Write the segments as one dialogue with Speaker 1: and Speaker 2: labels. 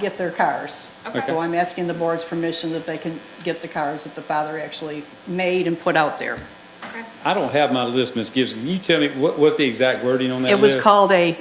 Speaker 1: get their cars.
Speaker 2: Okay.
Speaker 1: So I'm asking the board's permission that they can get the cars that the father actually made and put out there.
Speaker 2: Okay.
Speaker 3: I don't have my list, Ms. Gibson. Can you tell me, what was the exact wording on that
Speaker 1: It
Speaker 3: list?
Speaker 1: was called a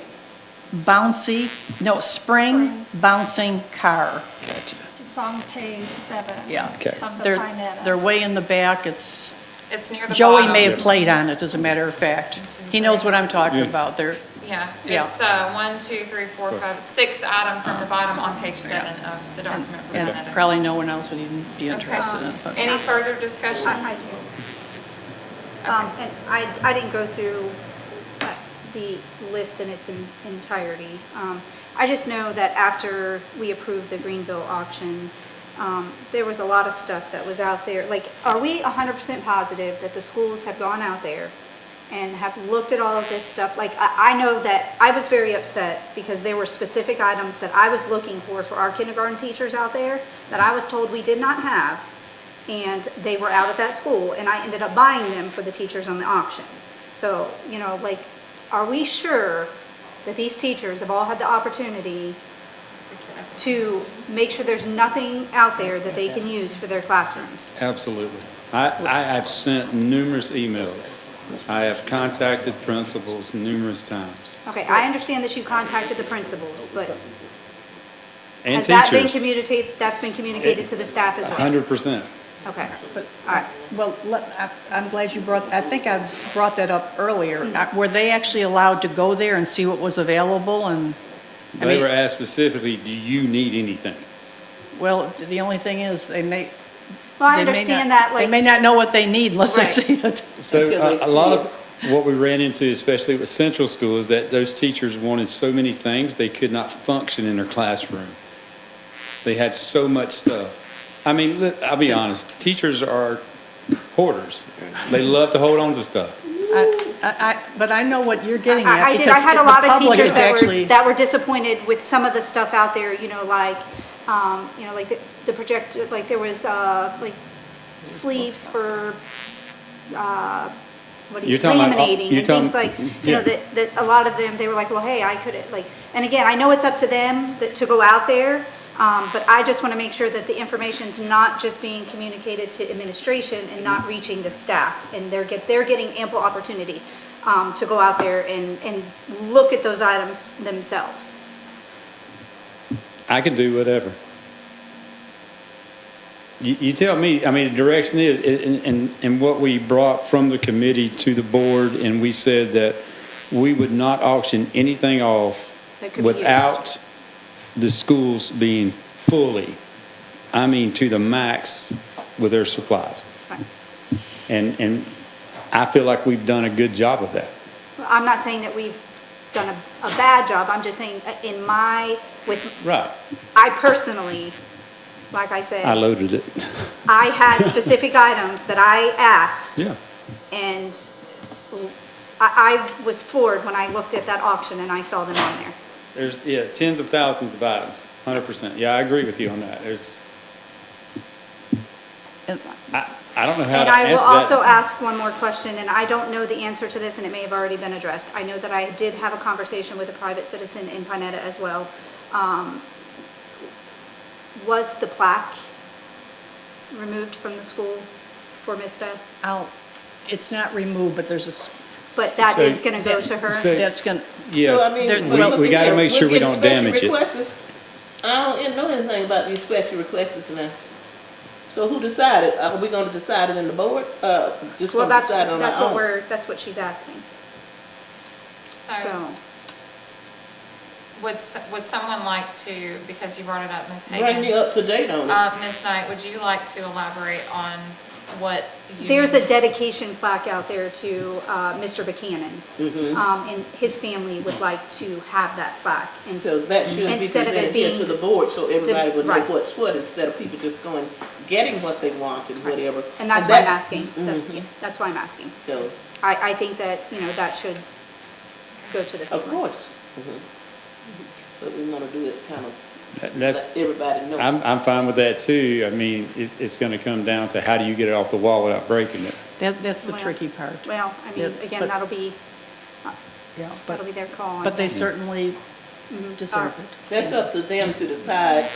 Speaker 1: bouncy, no, spring bouncing car.
Speaker 4: It's on page seven.
Speaker 1: Yeah.
Speaker 3: Okay.
Speaker 4: Of the
Speaker 1: They're-
Speaker 4: Pinetta.
Speaker 1: They're way in the back. It's,
Speaker 2: It's near the
Speaker 1: Joey
Speaker 2: bottom.
Speaker 1: may have played on it, as a matter of fact. He knows what I'm talking
Speaker 3: Yeah.
Speaker 1: about. They're,
Speaker 2: Yeah,
Speaker 1: Yeah.
Speaker 2: it's uh, one, two, three, four, five, six item from the bottom on page seven of the
Speaker 1: and
Speaker 2: document.
Speaker 1: and
Speaker 2: presented.
Speaker 1: probably no one else would even be
Speaker 2: Okay.
Speaker 1: interested in it. but-
Speaker 2: Any further discussion?
Speaker 5: I I do. Um, And I, I didn't go through uh, the list in its en- entirety. Um, I just know that after we approved the Greenville auction, um, there was a lot of stuff that was out there. Like, are we 100% positive that the schools have gone out there and have looked at all of this stuff? Like, I, I know that, I was very upset because there were specific items that I was looking for for our kindergarten teachers out there that I was told we did not have and they were out at that school, and I ended up buying them for the teachers on the auction. So, you know, like, are we sure that these teachers have all had the opportunity to make sure there's nothing out there that they can use for their classrooms?
Speaker 3: Absolutely. I, I have sent numerous emails. I have contacted principals numerous times,
Speaker 5: Okay, I understand that you contacted the principals, but
Speaker 3: and
Speaker 5: has that been
Speaker 3: teachers.
Speaker 5: communicated, that's been communicated to the staff as well?
Speaker 3: hundred percent.
Speaker 5: Okay,
Speaker 1: But,
Speaker 5: all right.
Speaker 1: well, let- I- I'm glad you brought, I think I brought that up earlier.
Speaker 5: Hmm.
Speaker 1: Uh, Were they actually allowed to go there and see what was available? And, I
Speaker 3: They
Speaker 1: mean-
Speaker 3: were asked specifically, do you need anything?
Speaker 1: well, the only thing is, they may,
Speaker 5: Well, I
Speaker 1: they may
Speaker 5: understand
Speaker 1: not-
Speaker 5: that, like.
Speaker 1: They may not know what they need unless they
Speaker 5: Right.
Speaker 1: see it.
Speaker 3: So
Speaker 1: Until
Speaker 3: a,
Speaker 1: they
Speaker 3: a lot
Speaker 1: see
Speaker 3: of what we ran into, especially with central school, is that those teachers wanted so many things, they could not function in their classroom. They had so much stuff. I mean, li- I'll be honest, teachers are hoarders. They love to hold on to stuff.
Speaker 1: I- I, I, but I know what you're getting at.
Speaker 5: I I did, I
Speaker 1: because
Speaker 5: had
Speaker 1: the
Speaker 5: a lot of
Speaker 1: public
Speaker 5: teachers
Speaker 1: is
Speaker 5: that were,
Speaker 1: actually-
Speaker 5: that were disappointed with some of the stuff out there, you know, like, um, you know, like the- the project, like there was, uh, like sleeves for, uh, what do you,
Speaker 3: You're talking about-
Speaker 5: laminating
Speaker 3: you're
Speaker 5: and things
Speaker 3: talking-
Speaker 5: like, you know,
Speaker 3: yeah.
Speaker 5: that, that a lot of them, they were like, well, hey, I could, like, and again, I know it's up to them that, to go out there, um, but I just want to make sure that the information's not just being communicated to administration and
Speaker 3: Mm-hmm.
Speaker 5: not reaching the staff, and they're get, they're getting ample opportunity, um, to go out there and, and look at those items themselves.
Speaker 3: I can do whatever. You, you tell me, I mean, the direction is, and, and, and what we brought from the committee to the board, and we said that we would not auction anything off
Speaker 5: That could be used.
Speaker 3: without the schools being fully, I mean, to the max with their supplies.
Speaker 5: Right.
Speaker 3: And, and I feel like we've done a good job of that.
Speaker 5: I'm not saying that we've done a, a bad job, I'm just saying, uh, in my, with,
Speaker 3: Right.
Speaker 5: I personally, like I said.
Speaker 3: I loaded it.
Speaker 5: I had specific items that I asked.
Speaker 3: Yeah.
Speaker 5: And I, I was floored when I looked at that auction and I saw them on there.
Speaker 3: There's, yeah, tens of thousands of items, hundred percent. Yeah, I agree with you on that. There's, I, I don't know how
Speaker 5: And
Speaker 3: to
Speaker 5: I will
Speaker 3: answer
Speaker 5: also
Speaker 3: that.
Speaker 5: ask one more question, and I don't know the answer to this, and it may have already been addressed. I know that I did have a conversation with a private citizen in Pinetta as well. Um, Was the plaque removed from the school for Miss Beth?
Speaker 1: I'll- It's not removed, but there's a, s-
Speaker 5: But that
Speaker 3: So-
Speaker 5: is gonna go to her?
Speaker 3: So-
Speaker 1: that's gonna,
Speaker 3: Yes,
Speaker 1: mean, there-
Speaker 3: we-
Speaker 1: well,
Speaker 3: we gotta make sure we don't damage it.
Speaker 6: it. I don't know anything about these special requests now. So who decided? Are we gonna decide it in the board? Uh, just
Speaker 5: Well,
Speaker 6: gonna
Speaker 5: that's,
Speaker 6: decide on our own?
Speaker 5: that's what we're, that's what she's asking,
Speaker 2: So
Speaker 5: so.
Speaker 2: would, s- would someone like to, because you brought it up, Ms.
Speaker 6: Bring me
Speaker 2: Hagan,
Speaker 6: up to date on it.
Speaker 2: uh, Ms. Knight, would you like to elaborate on what you?
Speaker 5: There's a dedication plaque out there to uh, Mr. Buchanan. Um, And his family would like to have that plaque. And
Speaker 6: So that should be
Speaker 5: instead of
Speaker 6: presented
Speaker 5: it
Speaker 6: here to
Speaker 5: being,
Speaker 6: the board, so everybody would know
Speaker 5: right.
Speaker 6: what's what, instead of people just going, getting what they want and whatever.
Speaker 5: and that's why I'm
Speaker 6: that-
Speaker 5: asking, That- yeah, that's why I'm asking.
Speaker 6: So,
Speaker 5: I, I think that, you know, that should go to the
Speaker 6: of
Speaker 5: family.
Speaker 6: course. Mhm. But we wanna do it kind of,
Speaker 3: That's,
Speaker 6: let everybody know.
Speaker 3: I'm, I'm fine with that too. I mean, it, it's gonna come down to how do you get it off the wall without breaking it?
Speaker 1: that, that's the
Speaker 5: Well,
Speaker 1: tricky part.
Speaker 5: Well, I mean,
Speaker 1: Yes,
Speaker 5: again,
Speaker 1: but-
Speaker 5: that'll be,
Speaker 1: Yeah,
Speaker 5: that'll
Speaker 1: but,
Speaker 5: be Mm-hmm. their call. I
Speaker 1: but they
Speaker 5: think.
Speaker 1: certainly deserved.
Speaker 6: That's up to them to decide